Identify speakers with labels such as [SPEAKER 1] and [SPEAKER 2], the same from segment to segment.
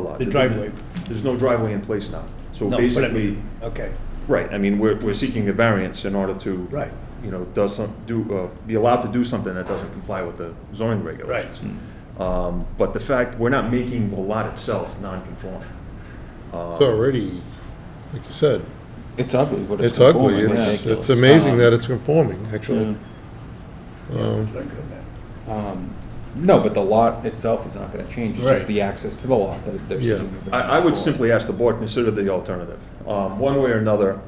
[SPEAKER 1] lot.
[SPEAKER 2] The driveway.
[SPEAKER 1] There's no driveway in place now. So
[SPEAKER 2] No, but I
[SPEAKER 1] basically,
[SPEAKER 2] mean, Okay,
[SPEAKER 1] right, I mean, we're, we're seeking a variance in order to.
[SPEAKER 2] right,
[SPEAKER 1] You know, does some, do, uh, be allowed to do something that doesn't comply with the zoning regulations. Um, but the fact, we're not making the lot itself non-conforming.
[SPEAKER 3] It's already, like you said,
[SPEAKER 4] It's ugly, but it's
[SPEAKER 3] it's ugly.
[SPEAKER 4] conforming.
[SPEAKER 3] It's, it's amazing
[SPEAKER 4] Um,
[SPEAKER 3] that it's conforming, actually. Um,
[SPEAKER 2] yeah, uh, that's not good, man.
[SPEAKER 4] um, No, but the lot itself is not gonna change, it's
[SPEAKER 2] Right.
[SPEAKER 4] just the access to the lot that they're
[SPEAKER 3] Yeah.
[SPEAKER 4] seeking. the
[SPEAKER 1] I, I would
[SPEAKER 4] variance for.
[SPEAKER 1] simply ask the board, consider the alternative. Um, one way or another,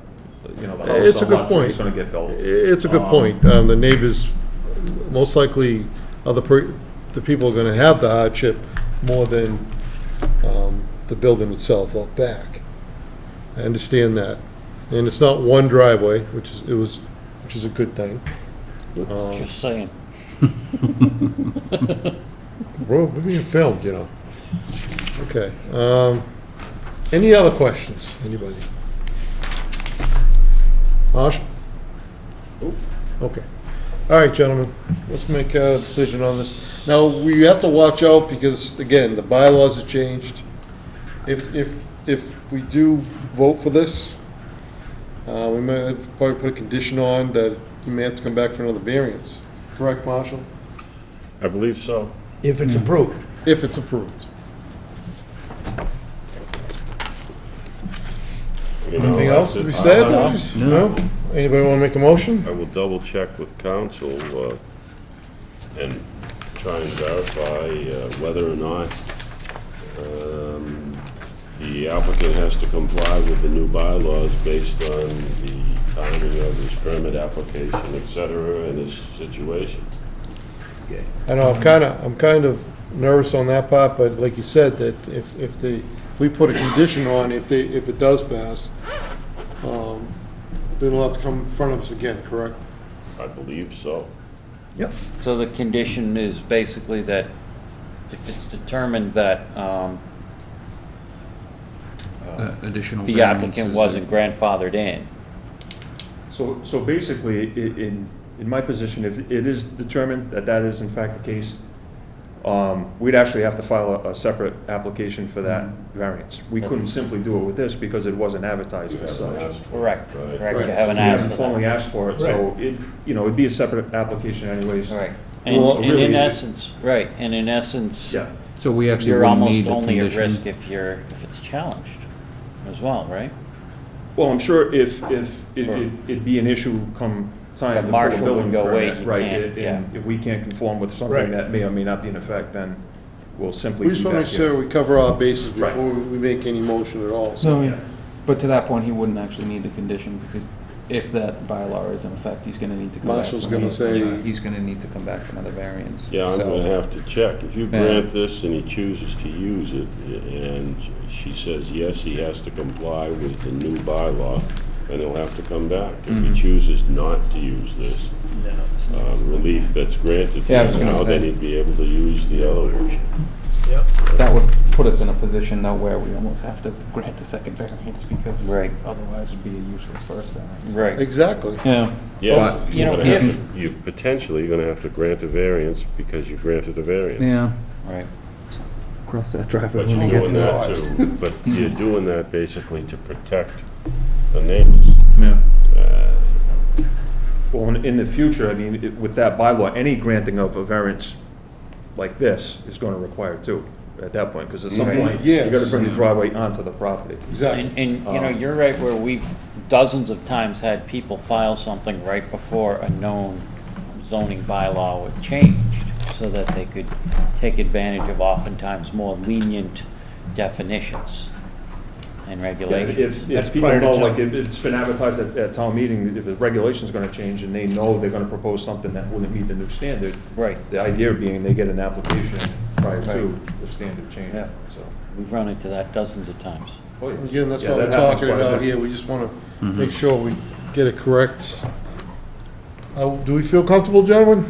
[SPEAKER 1] you know, the
[SPEAKER 3] It's
[SPEAKER 1] house
[SPEAKER 3] a
[SPEAKER 1] on
[SPEAKER 3] good
[SPEAKER 1] lot three is
[SPEAKER 3] point.
[SPEAKER 1] gonna get built.
[SPEAKER 3] It's a good point. Um, the neighbors, most likely, are the, per- the people are gonna have the hardship more than, um, the building itself up back. I understand that. And it's not one driveway, which is, it was, which is a good thing.
[SPEAKER 5] Just saying.
[SPEAKER 3] We're, we're being filmed, you know. Okay, um, any other questions, anybody? Marsh? Okay. All right, gentlemen, let's make a decision on this. Now, we have to watch out because, again, the bylaws have changed. If, if, if we do vote for this, uh, we may have probably put a condition on that you may have to come back for another variance. Correct, Marshall?
[SPEAKER 6] I believe so.
[SPEAKER 2] If it's approved,
[SPEAKER 3] If it's approved. Anything else to be
[SPEAKER 1] Uh,
[SPEAKER 3] said? No? Anybody want to make a motion?
[SPEAKER 6] I will double check with council uh, and try and verify uh, whether or not um, the applicant has to comply with the new bylaws based on the timing of his permit application, et cetera, and his situation.
[SPEAKER 3] I know, I'm kind of, I'm kind of nervous on that part, but like you said, that if, if they, if we put a condition on, if they, if it does pass, um, then it'll have to come in front of us again, correct?
[SPEAKER 6] I believe so.
[SPEAKER 2] yep,
[SPEAKER 5] So the condition is basically that if it's determined that um,
[SPEAKER 4] Uh, Additional
[SPEAKER 5] the applicant wasn't grandfathered in,
[SPEAKER 1] So, so basically, i- in, in my position, if it is determined that that is in fact the case, um, we'd actually have to file a, a separate application for that
[SPEAKER 5] Mm-hmm.
[SPEAKER 1] variance. We couldn't simply do it with this because it wasn't advertised
[SPEAKER 6] You
[SPEAKER 1] as
[SPEAKER 6] haven't
[SPEAKER 1] such.
[SPEAKER 6] asked for it,
[SPEAKER 5] correct,
[SPEAKER 6] right?
[SPEAKER 5] correct,
[SPEAKER 3] Right.
[SPEAKER 5] you haven't
[SPEAKER 1] We
[SPEAKER 5] asked
[SPEAKER 1] haven't
[SPEAKER 5] for that.
[SPEAKER 1] formally asked for it, so it, you know, it'd be a separate application anyways.
[SPEAKER 5] Right, and
[SPEAKER 3] Well,
[SPEAKER 5] and in
[SPEAKER 1] really-
[SPEAKER 5] essence, right, and in essence,
[SPEAKER 1] Yeah,
[SPEAKER 4] So we actually
[SPEAKER 5] you're
[SPEAKER 4] would
[SPEAKER 5] almost
[SPEAKER 4] need a
[SPEAKER 5] only at risk
[SPEAKER 4] condition.
[SPEAKER 5] if you're, if it's challenged as well, right?
[SPEAKER 1] well, I'm sure if, if, it-
[SPEAKER 5] Or-
[SPEAKER 1] it- it'd be an issue come time.
[SPEAKER 5] The
[SPEAKER 1] to pull a
[SPEAKER 5] marshal would
[SPEAKER 1] building
[SPEAKER 5] go,
[SPEAKER 1] permit,
[SPEAKER 5] "Wait, you
[SPEAKER 1] right,
[SPEAKER 5] can't,"
[SPEAKER 1] and-
[SPEAKER 5] yeah.
[SPEAKER 1] and If we can't conform with
[SPEAKER 2] Right.
[SPEAKER 1] something that may or may not be in effect, then we'll simply
[SPEAKER 3] We
[SPEAKER 1] be
[SPEAKER 3] just want to
[SPEAKER 1] back
[SPEAKER 3] make
[SPEAKER 1] here.
[SPEAKER 3] sure we cover our bases
[SPEAKER 1] Right.
[SPEAKER 3] before we make any motion at all, so.
[SPEAKER 4] So, yeah. but to that point, he wouldn't actually need the condition because if that bylaw is in effect, he's gonna need to come back.
[SPEAKER 3] Marshall's
[SPEAKER 4] for
[SPEAKER 3] gonna
[SPEAKER 4] another-
[SPEAKER 3] say-
[SPEAKER 4] yeah, He's gonna need to come back for another variance.
[SPEAKER 6] Yeah, I'm
[SPEAKER 4] So-
[SPEAKER 6] gonna have to check. If you
[SPEAKER 4] Yeah.
[SPEAKER 6] grant this and he chooses to use it, and she says, yes, he has to comply with the new bylaw, then he'll have to come back. If
[SPEAKER 4] Mm-hmm.
[SPEAKER 6] he chooses not to use this uh, relief that's granted
[SPEAKER 4] Yeah, I
[SPEAKER 6] to
[SPEAKER 4] was
[SPEAKER 6] him
[SPEAKER 4] gonna
[SPEAKER 6] now, then
[SPEAKER 4] say.
[SPEAKER 6] he'd be able to use the other one.
[SPEAKER 2] yep.
[SPEAKER 4] That would put us in a position though where we almost have to grant a second variance because
[SPEAKER 5] Right.
[SPEAKER 4] otherwise it'd be a useless first variance.
[SPEAKER 5] Right.
[SPEAKER 3] Exactly.
[SPEAKER 4] Yeah.
[SPEAKER 6] Yeah,
[SPEAKER 4] But,
[SPEAKER 5] you
[SPEAKER 6] you're
[SPEAKER 5] know,
[SPEAKER 6] gonna
[SPEAKER 5] if-
[SPEAKER 6] have to, you're potentially gonna have to grant a variance because you granted a variance.
[SPEAKER 5] Right.
[SPEAKER 4] Cross that driveway
[SPEAKER 6] But
[SPEAKER 4] when we
[SPEAKER 6] you're
[SPEAKER 4] get
[SPEAKER 6] doing
[SPEAKER 4] to it.
[SPEAKER 6] that to, but you're doing that basically to protect the neighbors.
[SPEAKER 4] Yeah.
[SPEAKER 6] Uh,
[SPEAKER 1] Well, in, in the future, I mean, it- with that bylaw, any granting of a variance like this is gonna require two, at that point, because at some
[SPEAKER 5] Right.
[SPEAKER 1] point, you gotta
[SPEAKER 3] Mm-hmm. Yes.
[SPEAKER 1] bring the driveway onto the property.
[SPEAKER 3] Exactly.
[SPEAKER 5] And, and, you know,
[SPEAKER 1] Um,
[SPEAKER 5] you're right where we've dozens of times had people file something right before a known zoning bylaw would changed, so that they could take advantage of oftentimes more lenient definitions and
[SPEAKER 1] Yeah,
[SPEAKER 5] regulations.
[SPEAKER 1] If,
[SPEAKER 2] That's
[SPEAKER 1] if people
[SPEAKER 2] prior to
[SPEAKER 1] know,
[SPEAKER 2] town-
[SPEAKER 1] like, if it's been advertised at, at town meeting, if the regulation's gonna change, and they know they're gonna propose something that wouldn't meet the new standard,
[SPEAKER 5] Right,
[SPEAKER 1] the idea being they get an application prior to
[SPEAKER 5] Right.
[SPEAKER 1] the standard change,
[SPEAKER 5] Yeah.
[SPEAKER 1] so.
[SPEAKER 5] we've run into that dozens of times.
[SPEAKER 1] oh, yes.
[SPEAKER 3] Again, that's
[SPEAKER 1] Yeah,
[SPEAKER 3] what
[SPEAKER 1] that
[SPEAKER 3] we're
[SPEAKER 1] happens quite
[SPEAKER 3] talking
[SPEAKER 1] a bit.
[SPEAKER 3] about
[SPEAKER 1] Mm-hmm.
[SPEAKER 3] here, we just want to make sure we get it correct. Uh, Do we feel comfortable, gentlemen?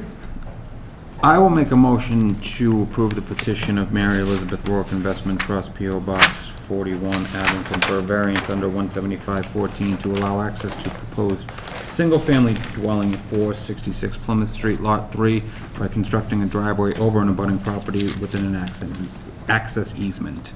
[SPEAKER 4] I will make a motion to approve the petition of Mary Elizabeth Rourke Investment Trust, P.O. Box 41, Abington, for a variance under 175-14 to allow access to proposed single-family dwelling at 466 Plymouth Street, Lot 3, by constructing a driveway over an abutting property within an accent- access easement.